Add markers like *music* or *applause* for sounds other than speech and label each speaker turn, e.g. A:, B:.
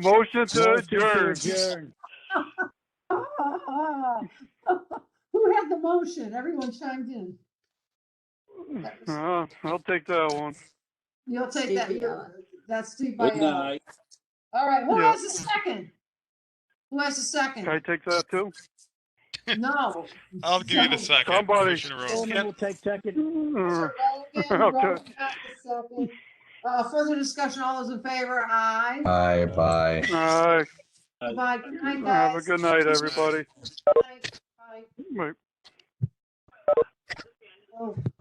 A: Motion to
B: Motion to
A: adjourn.
B: adjourn.
C: *laughs* Who had the motion? Everyone chimed in.
A: Uh, I'll take that one.
C: You'll take
D: Steve
C: that.
D: Biella.
C: That's Steve
B: Good
C: Biella.
B: night.
C: All right, who
A: Yeah.
C: has the second? Who has the
A: Can I
C: second?
A: take that too?
C: *laughs* No.
E: I'll give you the second.
A: Somebody-
E: Commissioner Rose.
B: Coleman will take second.
A: Uh,
C: Mr. Rogan,
A: *laughs* Okay.
C: Rogan got the second. Uh, further discussion, all those in favor, aye.
F: Bye, bye.
A: All right.
B: Aye.
C: Bye, good night,
A: Uh, Have a
C: guys.
A: good night, everybody.
C: Bye.
A: Bye.
C: Oh.